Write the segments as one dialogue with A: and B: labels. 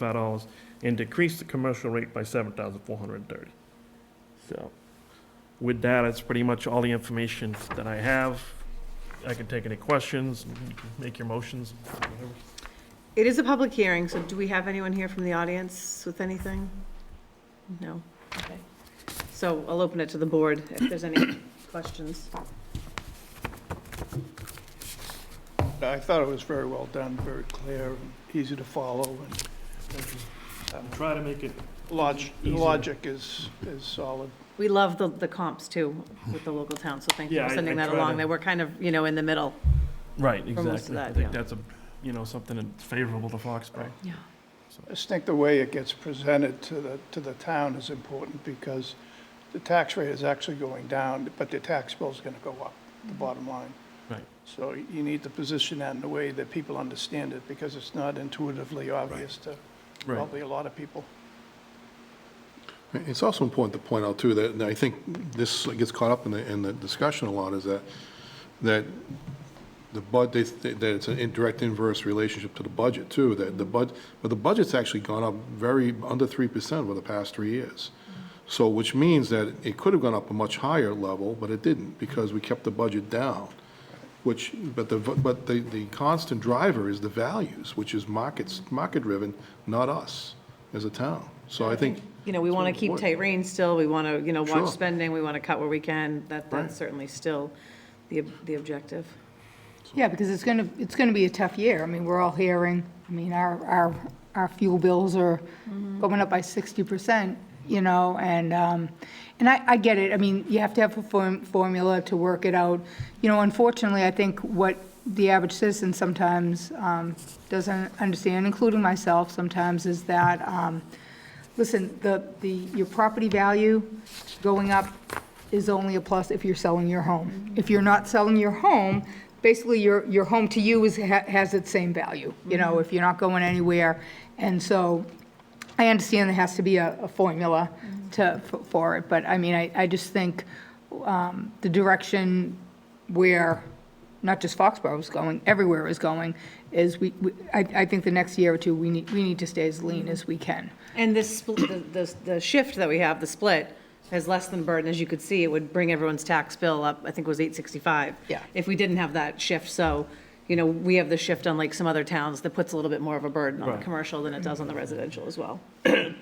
A: five dollars and decrease the commercial rate by seven thousand four hundred and thirty. So, with that, that's pretty much all the information that I have. I can take any questions, you can make your motions, whatever.
B: It is a public hearing, so do we have anyone here from the audience with anything? No? Okay. So I'll open it to the board if there's any questions.
C: I thought it was very well done, very clear, and easy to follow, and
A: Try to make it.
C: logic,
A: Easier.
C: logic is, is solid.
B: We love the, the comps too with the local town, so thank you
A: Yeah, I-
B: for sending
A: I
B: that
A: try
B: along.
A: to-
B: They were kind of, you know, in the middle.
A: Right,
B: For most of
A: exactly. I
B: that,
A: think
B: yeah.
A: that's a, you know, something that's favorable to Foxborough.
B: Yeah.
C: I just think the way it gets presented to the, to the town is important because the tax rate is actually going down, but the tax bill's gonna go up, the bottom line.
A: Right.
C: So you need to position that in a way that people understand it because it's not intuitively obvious to
A: Right.
C: probably a lot of people.
D: It's also important to point out, too, that, and I think this gets caught up in the, in the discussion a lot, is that, that the bud, they- that it's an indirect inverse relationship to the budget, too, that the bud, but the budget's actually gone up very, under 3% over the past three years. So, which means that it could have gone up a much higher level, but it didn't, because we kept the budget down, which, but the, but the, the constant driver is the values, which is markets, market-driven, not us as a town. So I think.
B: You know, we want to keep tight reins still. We want to, you know,
D: Sure.
B: watch spending. We want to cut where we can. That,
D: Right.
B: that's certainly still the, ob- the objective.
E: Yeah, because it's going to, it's going to be a tough year. I mean, we're all hearing, I mean, our, our, our fuel bills are going up by 60%, you know, and, um, and I, I get it. I mean, you have to have a form, formula to work it out. You know, unfortunately, I think what the average citizen sometimes, um, doesn't understand, including myself sometimes, is that, um, listen, the, the, your property value going up is only a plus if you're selling your home. If you're not selling your home, basically your, your home to you is, ha- has its same value, you know, if you're not going anywhere. And so I understand there has to be a, a formula to, for- for it, but I mean, I, I just think um, the direction where not just Foxborough is going, everywhere is going, is we, we- I, I think the next year or two, we need, we need to stay as lean as we can.
B: And this, spl- the, the, the shift that we have, the split, is less than burden, as you could see, it would bring everyone's tax bill up, I think it was eight sixty-five.
E: Yeah.
B: If we didn't have that shift, so, you know, we have the shift unlike some other towns that puts a little bit more of a burden on the
A: Right.
B: commercial than it does on the residential as well.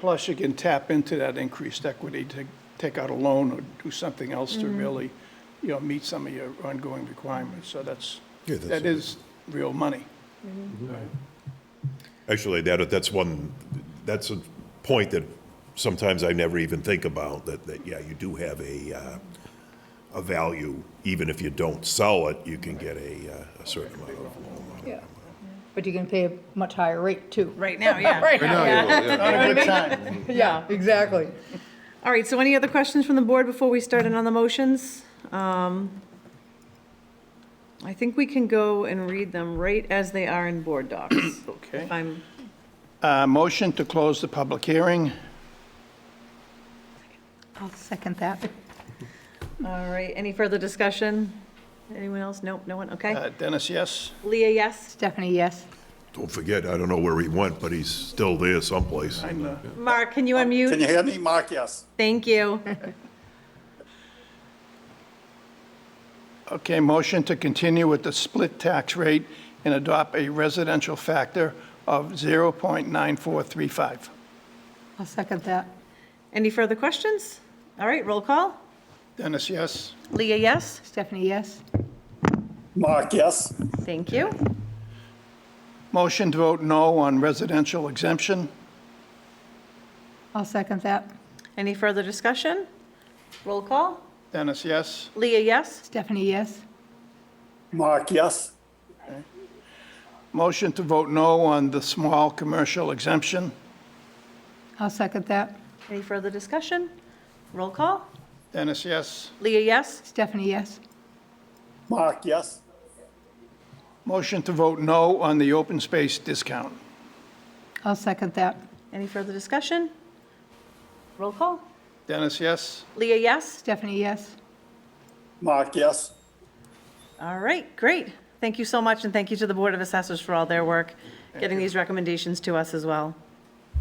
C: Plus, you can tap into that increased equity to take out a loan or do something else to really, you know, meet some of your ongoing requirements. So that's,
F: Yeah, that's
C: that
F: it.
C: is real money.
F: Actually, that, that's one, that's a point that sometimes I never even think about, that, that, yeah, you do have a, uh, a value, even if you don't sell it, you can get a, uh, a certain amount of loan.
E: But you can pay a much higher rate, too.
B: Right now, yeah.
E: Right now,
C: Not a good time.
E: Yeah, exactly.
B: All right, so any other questions from the board before we start in on the motions? Um, I think we can go and read them right as they are in board docs.
C: Okay.
B: If I'm,
C: Uh, Motion to close the public hearing.
E: I'll second that.
B: all right, any further discussion? Anyone else? Nope, no one, okay.
C: Uh, Dennis, yes?
B: Leah, yes.
E: Stephanie, yes?
F: Don't forget, I don't know where he went, but he's still there someplace.
C: I know.
B: Mark, can you
G: Oh, Can
B: unmute?
G: you hear me? Mark, yes.
B: Thank you.
C: Okay, motion to continue with the split tax rate and adopt a residential factor of 0.9435.
E: I'll second that.
B: Any further questions? All right, roll call.
C: Dennis, yes?
B: Leah, yes.
E: Stephanie, yes?
G: Mark, yes.
B: Thank you.
C: Motion to vote no on residential exemption.
E: I'll second that.
B: Any further discussion? Roll call.
C: Dennis, yes?
B: Leah, yes.
E: Stephanie, yes?
G: Mark, yes.
C: Motion to vote no on the small commercial exemption.
E: I'll second that.
B: Any further discussion? Roll call.
C: Dennis, yes.
B: Leah, yes.
E: Stephanie, yes?
G: Mark, yes.
C: Motion to vote no on the open space discount.
E: I'll second that.
B: Any further discussion? Roll call.
C: Dennis, yes.
B: Leah, yes.
E: Stephanie, yes?
G: Mark, yes.
B: All right, great. Thank you so much, and thank you to the Board of Assessors for all their work, getting these recommendations to us as well.